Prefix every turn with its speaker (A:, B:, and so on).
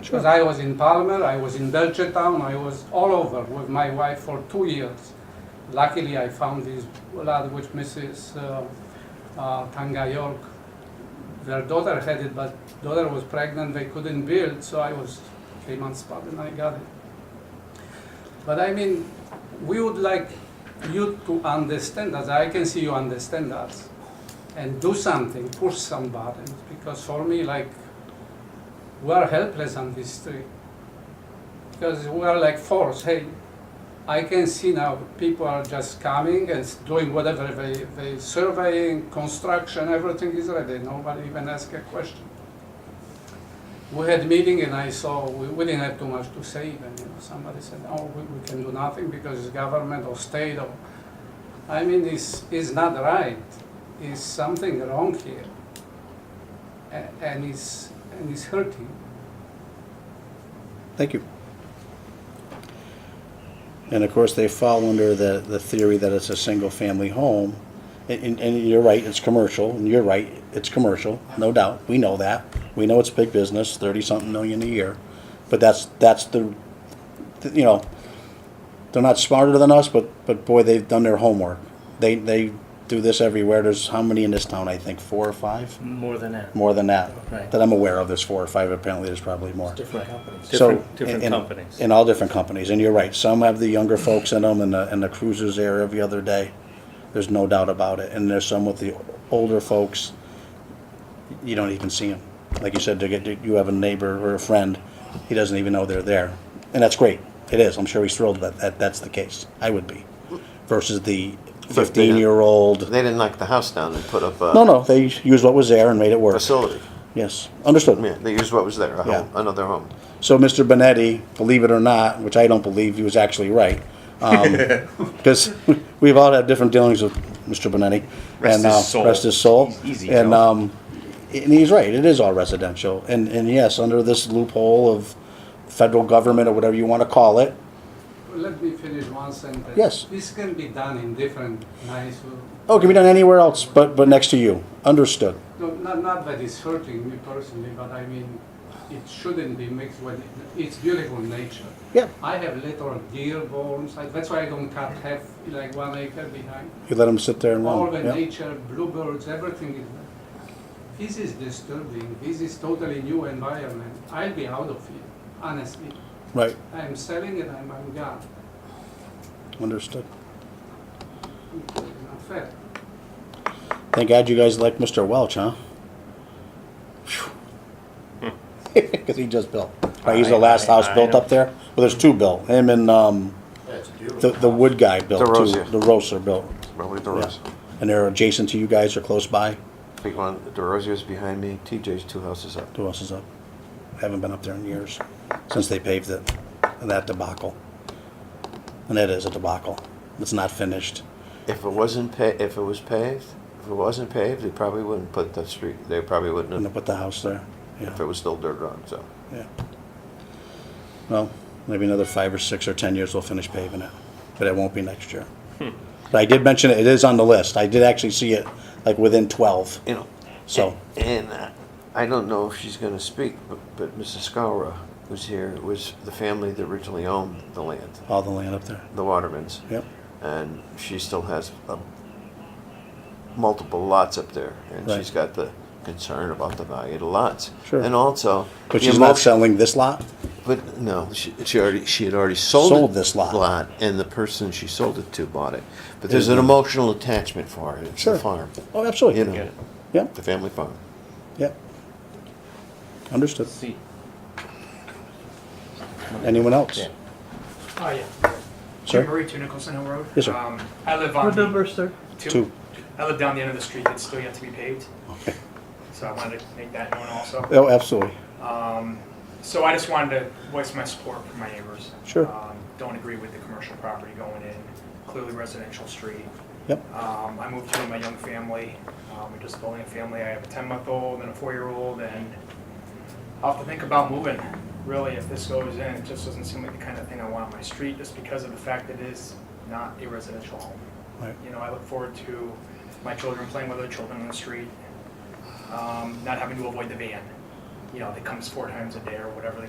A: Because I was in Palmer, I was in Belchertown, I was all over with my wife for two years. Luckily, I found this lad, which Mrs. Uh, uh, Tangayolk, their daughter had it, but daughter was pregnant, they couldn't build, so I was came on spot and I got it. But I mean, we would like you to understand us. I can see you understand us and do something, push some buttons. Because for me, like, we are helpless on this street. Because we are like force. Hey, I can see now people are just coming and s- doing whatever they, they surveying, construction, everything is ready. Nobody even ask a question. We had meeting and I saw, we, we didn't have too much to say even, you know, somebody said, oh, we, we can do nothing because it's government or state or, I mean, it's, it's not right, it's something wrong here. And, and it's, and it's hurting.
B: Thank you. And of course, they fall under the, the theory that it's a single-family home. And, and- and you're right, it's commercial, and you're right, it's commercial, no doubt. We know that. We know it's big business, thirty-something million a year. But that's, that's the, th- you know, they're not smarter than us, but, but boy, they've done their homework. They, they do this everywhere. There's how many in this town, I think, four or five?
C: More than that.
B: More than that.
C: Right.
B: That I'm aware of, there's four or five. Apparently, there's probably more.
C: Different companies.
B: So,
D: Different- different
B: in- in-
D: companies.
B: In all different companies, and you're right, some have the younger folks in them, and the, and the cruisers there every other day, there's no doubt about it, and there's some with the older folks, you don't even see them. Like you said, they get- you have a neighbor or a friend, he doesn't even know they're there, and that's great, it is, I'm sure he's thrilled that, that that's the case, I would be, versus the fifteen-year-old,
E: They didn't knock the house down and put up a
B: no, no, they used what was there and made it work,
E: facility.
B: yes, understood.
E: Yeah, they used what was there, a
B: Yeah.
E: home, another home.
B: So Mr. Benetti, believe it or not, which I don't believe, he was actually right. um, Because we've all had different dealings with Mr. Benetti.
D: Rest
B: and,
D: his
B: uh,
D: soul.
B: Rest his soul.
D: He's easy,
B: And,
D: Joe.
B: um, and he's right, it is all residential. And, and yes, under this loophole of federal government or whatever you want to call it,
A: Let me finish one sentence.
B: Yes.
A: This can be done in different, nice, uh,
B: oh, it can be done anywhere else but, but next to you. Understood.
A: no, not, not that it's hurting me personally, but I mean, it shouldn't be mixed with, it's beautiful nature.
B: Yeah.
A: I have little deer bones, I- that's why I don't cut half, like one acre behind.
B: You let him sit there and
A: All
B: run.
A: the
B: yeah.
A: nature, bluebirds, everything is there. This is disturbing, this is totally new environment. I'll be out of here, honestly.
B: Right,
A: I'm selling it, I'm, I'm gone.
B: understood.
A: It's Not fair.
B: Thank God you guys like Mr. Welch, huh? Because he just built. Right, he's the
D: I-
B: last
D: I-
B: house
D: I
B: built
D: know.
B: up there. Well, there's two built. Him and um, the the wood guy built
E: DeRosa.
B: too. The Roser built.
E: Probably
B: Yeah.
E: DeRozio.
B: And they're adjacent to you guys or close by.
E: Big one, DeRozio's behind me, TJ's two houses up.
B: Who else is up? I haven't been up there in years since they paved it. That debacle. And that is a debacle. It's not finished.
E: If it wasn't pa, if it was paved, if it wasn't paved, they probably wouldn't put the street, they probably wouldn't
B: And they
E: have,
B: put the house there.
E: if
B: Yeah.
E: it was still dirt road, so.
B: yeah. Well, maybe another five or six or 10 years we'll finish paving it, but it won't be next year. But I did mention it, it is on the list. I did actually see it like within 12,
E: You know,
B: so,
E: and uh, I don't know if she's gonna speak, but, but Mrs. Scowra was here, was the family that originally owned the land,
B: all the land up there.
E: the Watermans.
B: Yep,
E: and she still has um, multiple lots up there, and
B: Right.
E: she's got the concern about the value of the lots.
B: Sure.
E: And also,
B: but
E: the
B: she's not
E: emotion-
B: selling this lot?
E: But no, she, she already she had already sold,
B: Sold
E: it-
B: this lot.
E: and the person she sold it to bought it. But there's an
B: Mhm.
E: emotional attachment for it. It's
B: Sure.
E: the farm,
B: Oh,
E: you
B: absolutely.
E: know,
D: it.
B: Yep,
E: the family farm.
B: yep. Understood.
D: See,
B: Anyone else?
D: Yeah.
F: Oh, yeah.
B: Sir?
F: Jim Marie, Two Nicholson Hill Road.
B: Yes, sir.
F: Um, I live on.
C: What number, sir?
B: Two.
F: I live down the end of the street that's still yet to be paved,
B: Okay.
F: so I wanted to make that known also.
B: Oh, absolutely.
F: Um, so I just wanted to voice my support for my neighbors.
B: Sure.
F: Um, don't agree with the commercial property going in, clearly residential street.
B: Yep,
F: Um, I moved here with my young family. Um, we're just building a family. I have a 10 month old and a four year old, and I'll have to think about moving. Really, if this goes in, it just doesn't seem like the kind of thing I want on my street, just because of the fact that it is not a residential home.
B: right,
F: You know, I look forward to my children playing with other children on the street, um, not having to avoid the van. You know, that comes four times a day or whatever the